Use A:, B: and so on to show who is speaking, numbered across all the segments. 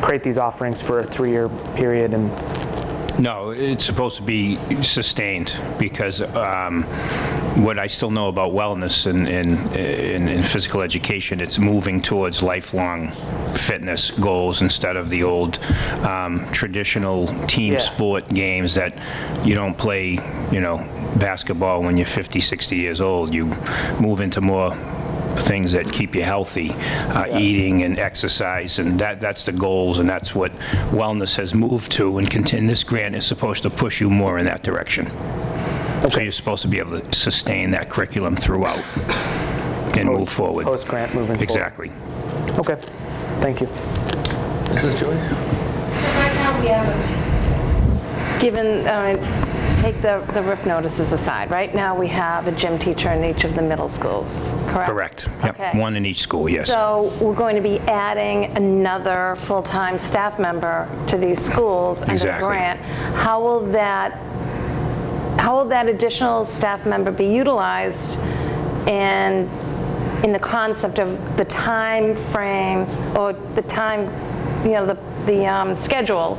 A: create these offerings for a three-year period and
B: No, it's supposed to be sustained, because um, what I still know about wellness and, and, and and physical education, it's moving towards lifelong fitness goals instead of the old um, traditional team
A: Yeah.
B: sport games that you don't play, you know, basketball when you're 50, 60 years old. You move into more things that keep you healthy, uh, eating and exercise, and that, that's the goals, and that's what wellness has moved to, and contin- this grant is supposed to push you more in that direction. So you're supposed to be able to sustain that curriculum throughout and move
A: post-
B: forward.
A: Post-grant Oh, moving forward.
B: Exactly.
A: Okay, thank you.
C: Mrs. Joyce?
D: So right now, we have,
E: Given, uh, take the the roof notices aside, right now we have a gym teacher in each of the middle schools, correct?
B: Correct. Yep.
E: Okay.
B: One in each school, yes.
E: So we're going to be adding another full-time staff member to these schools under the
B: Exactly.
E: grant. How will that, how will that additional staff member be utilized and in the concept of the time frame or the time, you know, the, the um, schedule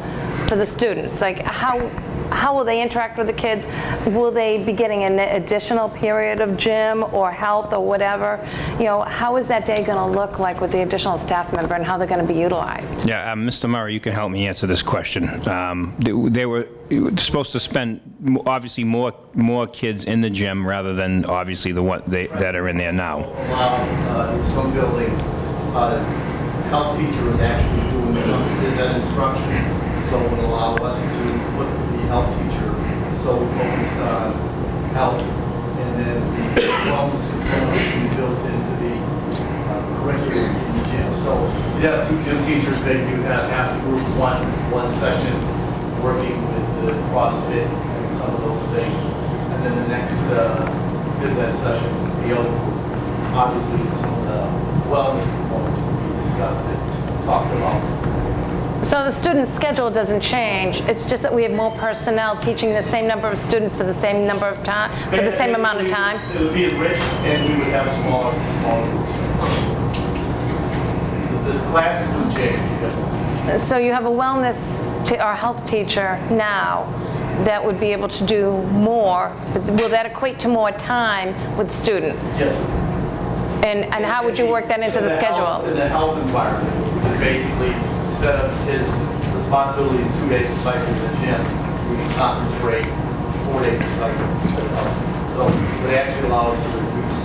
E: for the students? Like, how, how will they interact with the kids? Will they be getting an additional period of gym or health or whatever? You know, how is that day going to look like with the additional staff member and how they're going to be utilized?
B: Yeah, um, Mr. Murray, you can help me answer this question. Um, They they were supposed to spend, m- obviously, more, more kids in the gym rather than, obviously, the one they- that are in there now.
F: allow, uh, in some buildings, uh, health teacher is actually doing some, is that instruction, so it would allow us to put the health teacher so focused on health, and then the wellness component would be built into the uh, curriculum in the gym. So you have two gym teachers, then you have half the group, one, one session, working with the CrossFit and some of those things, and then the next uh, business session, the other group obviously some of the wellness components will be discussed and talked about.
E: So the student's schedule doesn't change, it's just that we have more personnel teaching the same number of students for the same number of time, for the same amount of time?
F: It would be enriched and we would have smaller, smaller groups. This class would change.
E: So you have a wellness t- or health teacher now that would be able to do more. but Will that equate to more time with students?
F: Yes.
E: And, and how would you work that into the
F: health- In
E: schedule?
F: the health environment, is basically, instead of his responsibilities two days a cycle in the gym, we can concentrate four days a cycle. instead of health. So it would actually allow us to reduce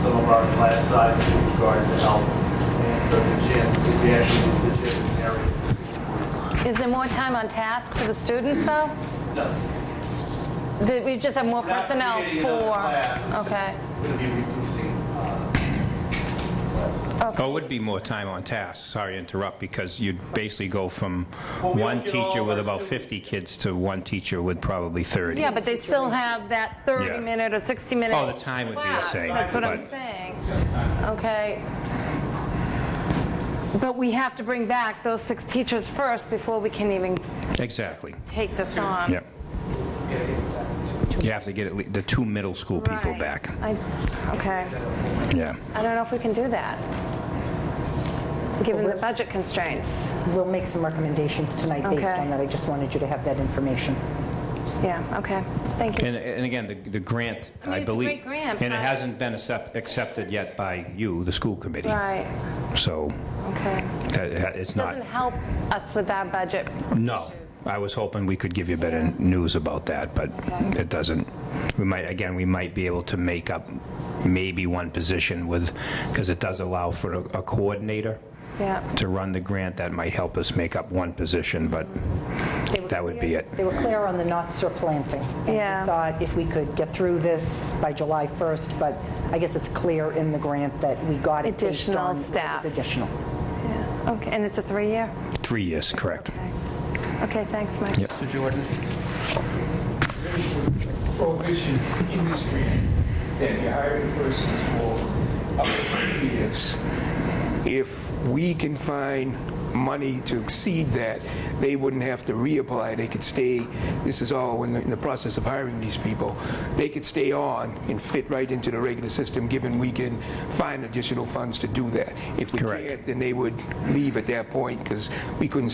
F: some of our class size in regards to health and for the gym, if we actually, the gym is an area.
E: Is there more time on task for the students, though?
F: No,
E: That we just have more
F: Not
E: personnel
F: creating another class.
E: for? Okay.
F: it would be reducing, uh,
B: Oh, it would be more time on task, sorry to interrupt, because you'd basically go from
F: we
B: one
F: don't get all
B: teacher
F: of
B: with
F: our
B: about 50 kids to one teacher with probably 30.
E: Yeah, but they still have that
B: Yeah.
E: 30-minute or 60-minute
B: Oh, the time would be the
E: class.
B: same,
E: That's what I'm
B: but-
E: saying. Okay. But we have to bring back those six teachers first before we can even
B: Exactly,
E: take this on.
B: yeah. You have to get at least the two middle school people
E: Right.
B: back,
E: I- Okay,
B: yeah.
E: I don't know if we can do that, given the budget constraints.
G: We'll make some recommendations tonight based
E: Okay.
G: on that. I just wanted you to have that information.
E: Yeah, okay, thank you.
B: And, and again, the, the grant,
E: mean,
B: I
E: it's a
B: believe.
E: great grant,
B: And it
E: but-
B: hasn't been accept- accepted yet by you, the school committee.
E: Right,
B: So
E: okay.
B: that- that- it's
E: Doesn't
B: not,
E: help us with our budget.
B: no. I was hoping we could give you better news about that, but
E: Okay.
B: it doesn't. We might, again, we might be able to make up maybe one position with, because it does allow for a a coordinator
E: Yeah,
B: to run the grant. That might help us make up one position, but that would be it.
G: They were clear on the not surplanting. and we
E: Yeah.
G: thought if we could get through this by July 1st, but I guess it's clear in the grant that we got it based
E: Additional
G: on... what was
E: staff.
G: Additional.
E: yeah, okay, and it's a three-year?
B: Three years, correct.
E: Okay. Okay, thanks, Mike.
B: Yep.
C: Mr. Jordan?
H: prohibition industry that you're hiring persons for up to three years. If we can find money to exceed that, they wouldn't have to reapply. They could stay, this is all in the, in the process of hiring these people. They could stay on and fit right into the regular system, given we can find additional funds to do that. If we
B: Correct.
H: can't, then they would leave at that point because we couldn't